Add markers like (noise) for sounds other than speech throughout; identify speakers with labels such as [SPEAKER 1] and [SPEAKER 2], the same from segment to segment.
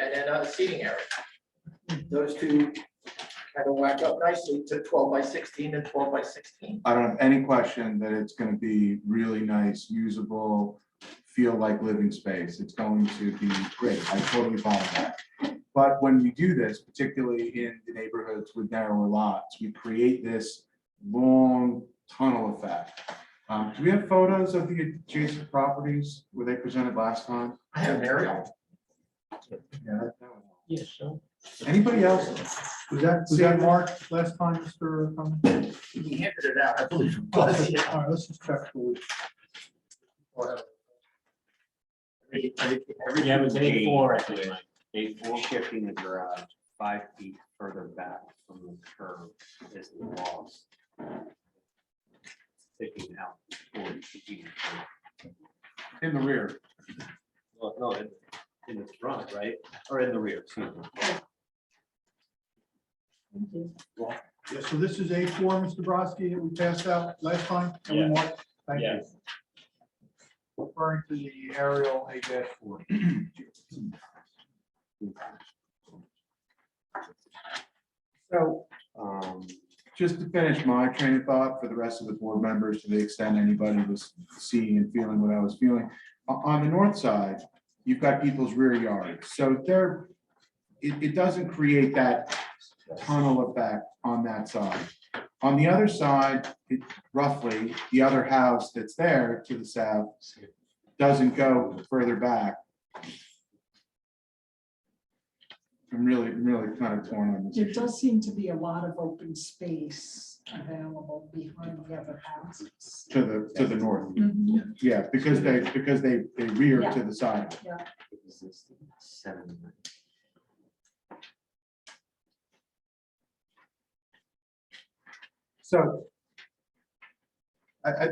[SPEAKER 1] and then a seating area. Those two kind of whack up nicely to twelve by sixteen and twelve by sixteen.
[SPEAKER 2] I don't have any question that it's gonna be really nice, usable, feel like living space. It's going to be great. I totally follow that. But when we do this, particularly in the neighborhoods with narrower lots, we create this long tunnel effect. Um, do we have photos of the adjacent properties? Were they presented last time?
[SPEAKER 1] I have an aerial.
[SPEAKER 2] Yeah. that- that was-
[SPEAKER 1] Yes, so.
[SPEAKER 2] Anybody else?
[SPEAKER 3] Was that, was that Mark last time, Mr. Cummings?
[SPEAKER 1] He handed it out, I believe. it
[SPEAKER 3] All
[SPEAKER 1] was, yeah.
[SPEAKER 3] right, let's just check. for it.
[SPEAKER 1] Every- every- every-
[SPEAKER 4] Yeah, it was eight four, I think. Mike.
[SPEAKER 5] Shifting the garage five feet further back from the curb is the walls. Sticking out. forty feet.
[SPEAKER 2] In the rear.
[SPEAKER 5] Well, no, in in the front, right, or in the rear, excuse me.
[SPEAKER 3] Yeah, so this is A four, Mr. Brodsky, that we passed out last time. Can we
[SPEAKER 4] Yeah.
[SPEAKER 3] mark? Thank you.
[SPEAKER 4] Yeah,
[SPEAKER 3] Referring to the aerial A dash four.
[SPEAKER 2] (clears throat) So
[SPEAKER 5] Um,
[SPEAKER 2] just to finish my train of thought for the rest of the board members, to the extent anybody was seeing and feeling what I was feeling. o- On the north side, you've got people's rear yards, so there, it, it doesn't create that tunnel effect on that side. On the other side, it roughly, the other house that's there to the south doesn't go further back. I'm really, really kind of torn on this.
[SPEAKER 6] There does seem to be a lot of open space available behind the other houses.
[SPEAKER 2] to the, to the north.
[SPEAKER 6] Mhm.
[SPEAKER 2] Yeah, because they, because they, they rear to the side.
[SPEAKER 5] existing seven.
[SPEAKER 2] So I, I,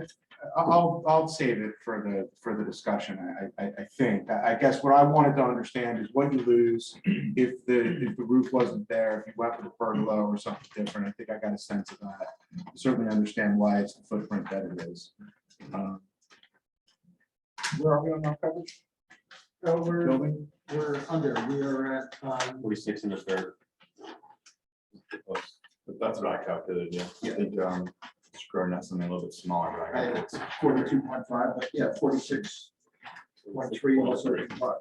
[SPEAKER 2] I'll, I'll save it for the, for the discussion, I, I, I think. I I guess what I wanted to understand is what you (clears throat) lose if the, if the roof wasn't there, if you went with a pergola or something different. I think I got a sense of that. Certainly understand why it's the footprint that it is. Um, Where are we on our coverage?
[SPEAKER 1] So we're,
[SPEAKER 2] Building?
[SPEAKER 1] we're under, we are at, um,
[SPEAKER 5] Forty-six and a third.
[SPEAKER 7] But that's what I calculated, yeah. I think, um, it's growing out something a little bit smaller, but I got it.
[SPEAKER 1] forty-two point five, but yeah, forty-six point three also applies.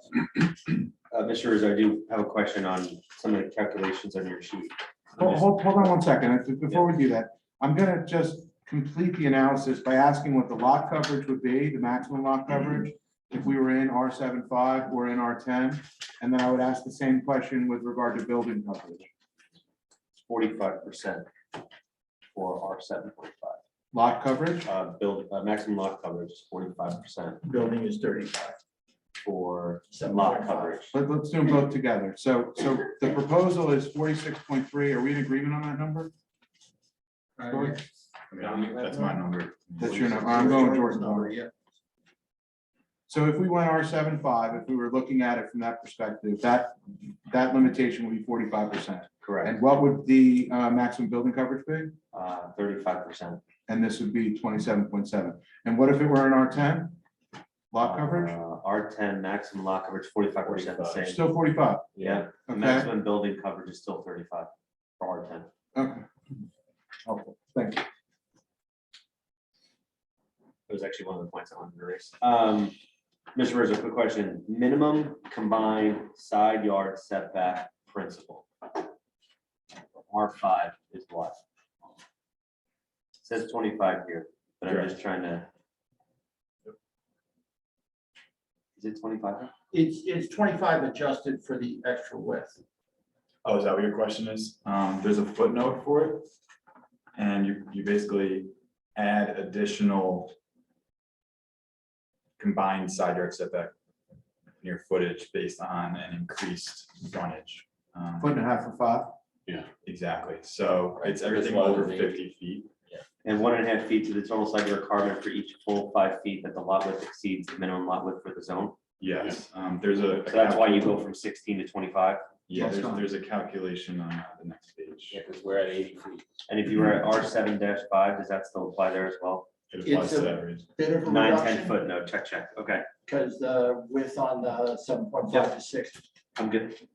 [SPEAKER 5] Uh, Mr. Rizzo, I do have a question on some of the calculations on your sheet.
[SPEAKER 2] Oh, Hold, hold, hold on one second, If- before we do that, I'm gonna just complete the analysis by asking what the lot coverage would be, the maximum lot
[SPEAKER 1] Mm-hmm.
[SPEAKER 2] coverage. If we were in R 75 or in R ten, and then I would ask the same question with regard to building coverage,
[SPEAKER 5] Forty-five percent for our seven point five.
[SPEAKER 2] lot coverage.
[SPEAKER 5] uh, build, uh, maximum lot coverage is forty-five percent
[SPEAKER 1] Building is thirty-five.
[SPEAKER 5] for lot coverage.
[SPEAKER 2] Let, let's do them both together, so, so the proposal is forty-six point three, are we in agreement on that number?
[SPEAKER 1] Uh,
[SPEAKER 2] Troy?
[SPEAKER 7] I mean, I'm- That's my number.
[SPEAKER 2] That's your number, I'm going Jordan.
[SPEAKER 1] Number, yeah.
[SPEAKER 2] So if we went R 75 if we were looking at it from that perspective, that, that limitation would be forty-five percent.
[SPEAKER 5] Correct,
[SPEAKER 2] And what would the uh, maximum building coverage be?
[SPEAKER 5] uh, thirty-five percent.
[SPEAKER 2] And this would be twenty-seven point seven. And what if it were an R ten? Lot coverage?
[SPEAKER 5] Uh, R ten maximum lot coverage, forty-five percent the same.
[SPEAKER 2] Still forty-five,
[SPEAKER 5] Yeah, the
[SPEAKER 2] okay?
[SPEAKER 5] maximum building coverage is still thirty-five for R ten.
[SPEAKER 2] Okay. Helpful, thank you.
[SPEAKER 5] It was actually one of the points I wanted to raise. Um, Mr. Rizzo, quick question, minimum combined side yard setback principle. R five is what? Says twenty-five here, but I'm just trying to. Is it twenty-five?
[SPEAKER 1] It's, it's twenty-five adjusted for the extra width.
[SPEAKER 7] Oh, is that what your question is? Um, there's a footnote for it. And you, you basically add additional combined side yard setback near footage based on an increased frontage. Um,
[SPEAKER 2] Foot and a half for five.
[SPEAKER 7] Exactly, so it's everything over fifty feet.
[SPEAKER 5] And one and a half feet to the total side yard requirement for each full five feet that the lot width exceeds the minimum lot width for the zone.
[SPEAKER 7] Yes, um, there's a.
[SPEAKER 5] So that's why you go from sixteen to twenty-five.
[SPEAKER 7] Yeah,
[SPEAKER 2] That's
[SPEAKER 7] there's,
[SPEAKER 2] fine.
[SPEAKER 7] there's a calculation on uh, the next page.
[SPEAKER 5] because we're at eighty feet. And if you were at R seven five, does that still apply there as well?
[SPEAKER 7] It
[SPEAKER 1] It's
[SPEAKER 7] applies to
[SPEAKER 1] a-
[SPEAKER 7] that reason.
[SPEAKER 1] Bit of a
[SPEAKER 5] Nine, ten
[SPEAKER 1] reduction,
[SPEAKER 5] foot, no, check, check, okay.
[SPEAKER 1] because the width on the seven point five to six
[SPEAKER 5] I'm good.